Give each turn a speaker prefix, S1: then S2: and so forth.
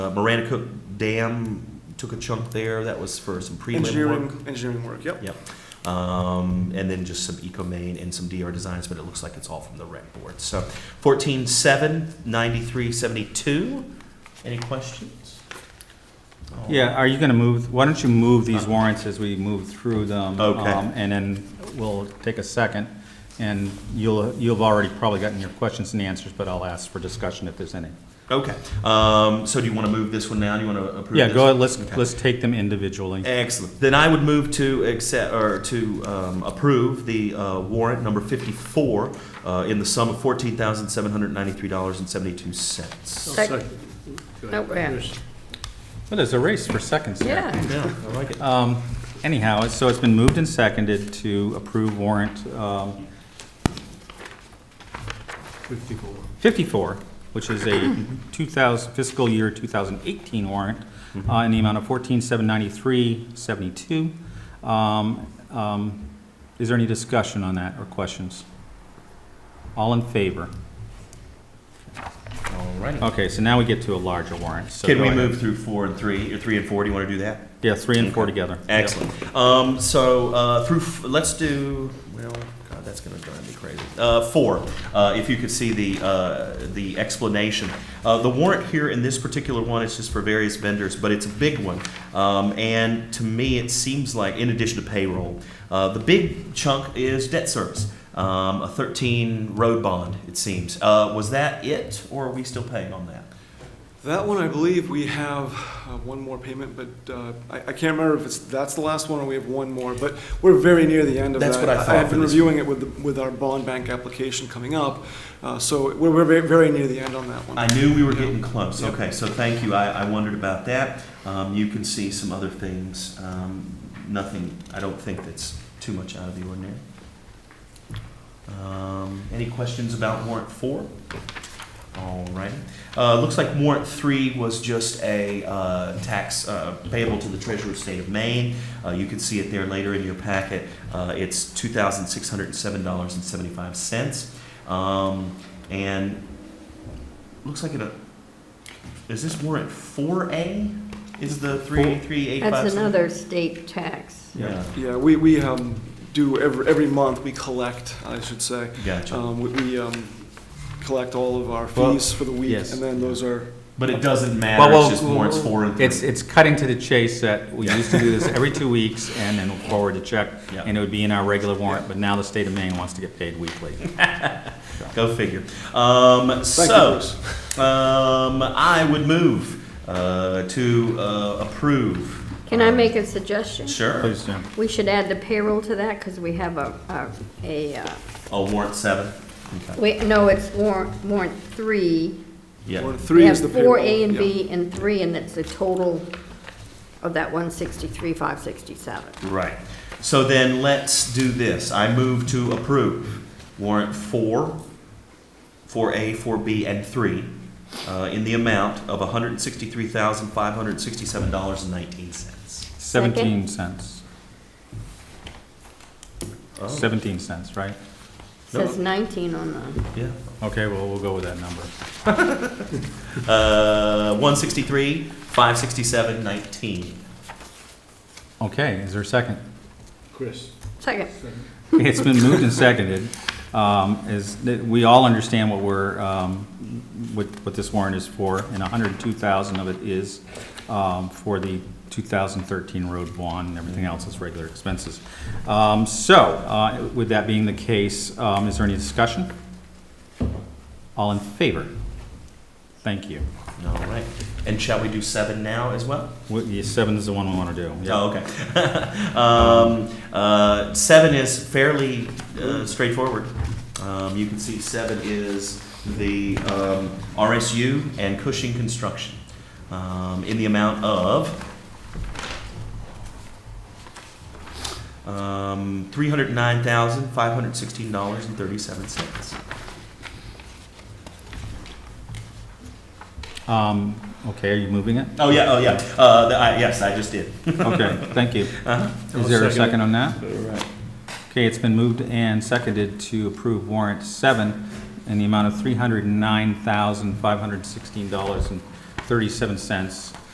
S1: Uh, Marana Cook Dam took a chunk there, that was for some prelim work.
S2: Engineering, engineering work, yep.
S1: Yep. Um, and then just some EcoMaine and some DR designs, but it looks like it's all from the rec board. So fourteen seven, ninety-three seventy-two. Any questions?
S3: Yeah, are you gonna move, why don't you move these warrants as we move through them?
S1: Uh-huh. Okay.
S3: um, And then we'll take a second, and you'll, you'll have already probably gotten your questions and answers, but I'll ask for discussion if there's any.
S1: Okay, um, so do you want to move this one now? Do you want to approve?
S3: Yeah,
S1: this
S3: go ahead,
S1: one?
S3: let's,
S1: Okay.
S3: let's take them individually.
S1: Excellent. Then I would move to accept, or to um, approve the uh, warrant number 54 uh, in the sum of
S2: Oh,
S1: $14,793.72.
S4: Sec-
S5: Go ahead.
S4: Yes.
S3: Well, there's a race for seconds here.
S5: Yeah,
S1: Yeah, I like it.
S3: Um, Anyhow, so it's been moved and seconded to approve warrant um,
S4: 54.
S3: 54, which is a 2000, fiscal year 2018 warrant,
S1: Mm-hmm.
S3: uh, in the amount of 14,793.72. Um, um, Is there any discussion on that or questions? All in favor?
S1: All righty.
S3: Okay, so now we get to a larger warrant. So
S1: Can
S3: go
S1: we
S3: ahead.
S1: move through four and three, or three and four? Do you want to do that?
S3: Yeah, three and four together.
S1: Excellent. Um, so uh, through, f- let's do, well, God, that's going to drive me crazy. Uh, four, uh, if you could see the, uh, the explanation. Uh, the warrant here in this particular one is just for various vendors, but it's a big one. Um, and to me, it seems like, in addition to payroll, uh, the big chunk is debt service. Um, a 13 road bond, it seems. Uh, was that it, or are we still paying on that?
S2: That one, I believe we have uh, one more payment, but uh, I I can't remember if it's, that's the last one or we have one more, but we're very near the end of that.
S1: That's what I thought
S2: have
S1: for
S2: been
S1: this-
S2: reviewing it with, the- with our bond bank application coming up, uh, so we're we're very, very near the end on that one.
S1: I knew we were getting close. Okay, so thank you. I, I wondered about that. Um, you can see some other things. Um, nothing, I don't think that's too much out of the ordinary. Um, any questions about warrant four? All right. Uh, looks like warrant three was just a uh, tax uh, payable to the treasurer of state of Maine. Uh, you can see it there later in your packet. Uh, it's two thousand six hundred and seven dollars and seventy-five cents. Um, and Looks like it, uh, is this warrant four A? Is the three, three, eight, five?
S5: that's
S1: seven?
S5: another state tax.
S1: Yeah,
S2: Yeah, we, we um, do, every, every month, we collect, I should say.
S1: gotcha.
S2: Um, We we, um, collect all of our
S3: Well,
S2: fees for the week,
S3: yes.
S2: and then those are
S1: But it doesn't matter,
S3: Well,
S1: it's
S3: well,
S1: just warrants four and three.
S3: It's, it's cutting to the chase that we used to do this every two weeks and then forward to check,
S1: Yeah.
S3: and it would be in our regular warrant, but now the state of Maine wants to get paid weekly.
S1: Go figure. Um,
S2: Thank you,
S1: so,
S2: Bruce.
S1: um, I would move, uh, to, uh, approve.
S5: Can I
S1: um,
S5: make a suggestion?
S1: Sure.
S3: Please, Jim.
S5: We should add the payroll to that, because we have a, a, a, uh,
S1: Oh, warrant seven? Okay.
S5: we, no, it's warrant, warrant three.
S1: Yeah,
S2: Warrant three
S5: We
S2: is the
S5: have
S2: payroll.
S5: Four A and
S2: yeah.
S5: B and three, and it's the total of that one sixty-three, five sixty-seven.
S1: right. So then let's do this. I move to approve warrant four, four A, four B, and three, uh, in the amount of one hundred sixty-three thousand five hundred sixty-seven dollars and nineteen cents.
S3: Seventeen cents.
S1: Oh.
S3: Oh, Seventeen cents, right?
S5: Says nineteen on the,
S1: Yeah.
S3: Okay, well, we'll go with that number.
S1: Uh, one sixty-three, five sixty-seven, nineteen.
S3: Okay, is there a second?
S4: Chris.
S5: second,
S3: It's been moved and seconded. Um, Is, that we all understand what we're, um, what what this warrant is for, and 102,000 of it is um, for the 2013 road bond, and everything else is regular expenses. Um, So, uh, with that being the case, um, is there any discussion? All in favor? Thank you.
S1: All right. And shall we do seven now as well?
S3: What- yeah, Seven is the one we want to do. Yeah.
S1: Oh, okay. um, uh, seven is fairly uh, straightforward. Um, you can see seven is the um, RSU and Cushing Construction um, in the amount of um, three hundred nine thousand five hundred sixteen dollars and thirty seven cents.
S3: Um, Okay, are you moving it?
S1: Oh yeah, oh yeah. Uh, the, I, yes, I just did.
S3: Okay, thank you. Is there a Uh-huh. second on that? Okay, it's been moved and seconded to approve warrant seven in the amount of three hundred and nine thousand, five hundred and sixteen dollars and thirty-seven cents